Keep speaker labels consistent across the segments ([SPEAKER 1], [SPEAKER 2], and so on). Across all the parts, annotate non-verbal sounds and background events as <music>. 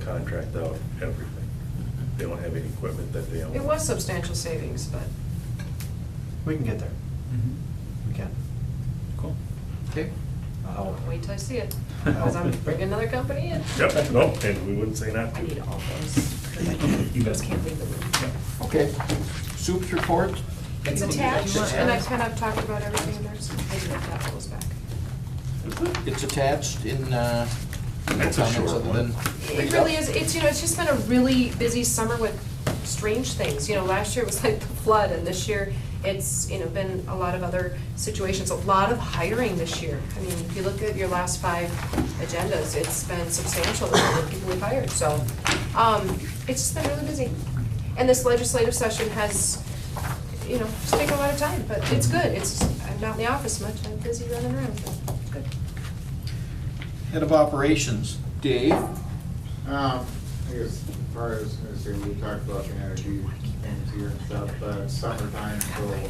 [SPEAKER 1] subcontract out everything. They don't have any equipment that they own.
[SPEAKER 2] It was substantial savings, but
[SPEAKER 3] We can get there. We can.
[SPEAKER 4] Cool.
[SPEAKER 3] Okay.
[SPEAKER 2] I'll wait till I see it,
[SPEAKER 3] Oh.
[SPEAKER 2] because I'm bringing another company in.
[SPEAKER 1] Yep, no, and we wouldn't say not
[SPEAKER 2] I need
[SPEAKER 1] to.
[SPEAKER 2] all those, because I
[SPEAKER 4] You
[SPEAKER 2] can't,
[SPEAKER 4] bet.
[SPEAKER 2] those can't leave the room.
[SPEAKER 3] Okay. Soup's report?
[SPEAKER 2] It's attached, and I kind of talked about everything there's, maybe that goes back.
[SPEAKER 3] It's attached in, uh, no
[SPEAKER 1] That's a
[SPEAKER 3] comments
[SPEAKER 1] short
[SPEAKER 3] other
[SPEAKER 1] one.
[SPEAKER 3] than.
[SPEAKER 2] It
[SPEAKER 3] read
[SPEAKER 2] really
[SPEAKER 3] up.
[SPEAKER 2] is, it's, you know, it's just been a really busy summer with strange things, you know, last year it was <laughs> like the flood, and this year, it's, you know, been a lot of other situations, a lot of hiring this year. I mean, if you look at your last five agendas, it's been substantial, the number of people we've hired, so, um, it's just been really busy. And this legislative session has, you know, just taken a lot of time, but it's good, it's, I'm not in the office much, I'm busy running around, but it's good.
[SPEAKER 3] Head of operations, Dave.
[SPEAKER 5] Um, I guess, as far as, as we talked about the energy things here and stuff, but summertime, so,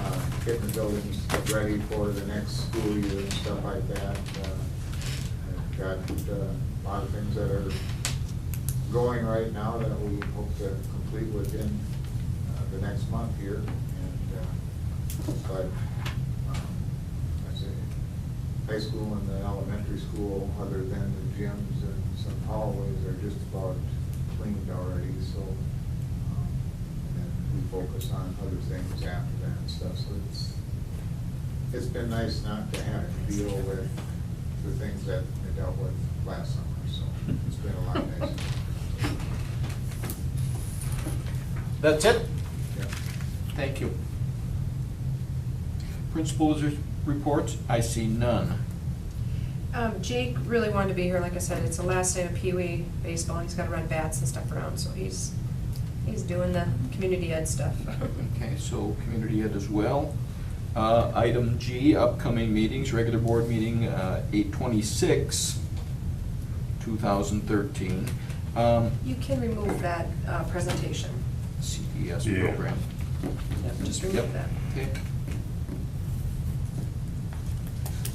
[SPEAKER 5] uh, getting the buildings ready for the next school year and stuff like that. Uh, I've Got uh, a lot of things that are going right now that we hope to complete within uh, the next month here. And, uh, but, um, I say, high school and the elementary school, other than the gyms and some hallways, are just about cleaned already, so. um, And then we focus on other things after that and stuff, so it's, it's been nice not to have to deal with the things that we dealt with last summer, so it's been a lot nicer.
[SPEAKER 3] That's it?
[SPEAKER 5] Yeah.
[SPEAKER 3] Thank you. Principals' re- reports, I see none.
[SPEAKER 2] Um, Jake really wanted to be here, like I said, it's the last day of Pee Wee baseball, he's gotta run bats and stuff around, so he's, he's doing the community ed stuff.
[SPEAKER 3] Okay, so community ed as well. Uh, Item G, upcoming meetings, regular board meeting, uh, eight twenty-six, two thousand thirteen. Um,
[SPEAKER 2] You can remove that, uh, presentation,
[SPEAKER 3] CES
[SPEAKER 1] Yeah.
[SPEAKER 3] E program.
[SPEAKER 2] Yep, just
[SPEAKER 3] Yep.
[SPEAKER 2] remove that.
[SPEAKER 3] Okay.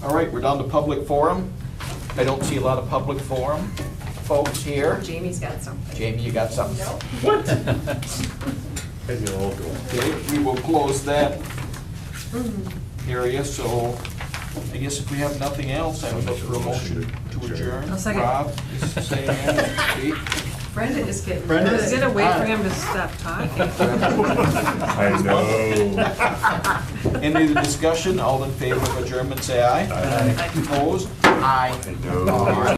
[SPEAKER 3] All right, we're down to public forum. I don't see a lot of public forum folks here.
[SPEAKER 2] Jamie's got something.
[SPEAKER 3] Jamie, you got something?
[SPEAKER 2] No? <laughs>
[SPEAKER 1] And you'll all go.
[SPEAKER 3] Okay, we will close that
[SPEAKER 2] Mm-hmm.
[SPEAKER 3] area, so I guess if we have nothing else, I would look for a motion to adjourn.
[SPEAKER 6] I'll second.
[SPEAKER 3] Rob, is saying, Kate?
[SPEAKER 6] Brenda is getting,
[SPEAKER 3] Brenda
[SPEAKER 6] is
[SPEAKER 3] is-
[SPEAKER 6] gonna wait
[SPEAKER 3] Hi.
[SPEAKER 6] for him to stop talking.
[SPEAKER 1] I know.
[SPEAKER 5] <laughs>
[SPEAKER 3] Any discussion, all in favor of adjournment, say aye.
[SPEAKER 1] Aye.
[SPEAKER 3] Opposed? Aye.
[SPEAKER 1] I know.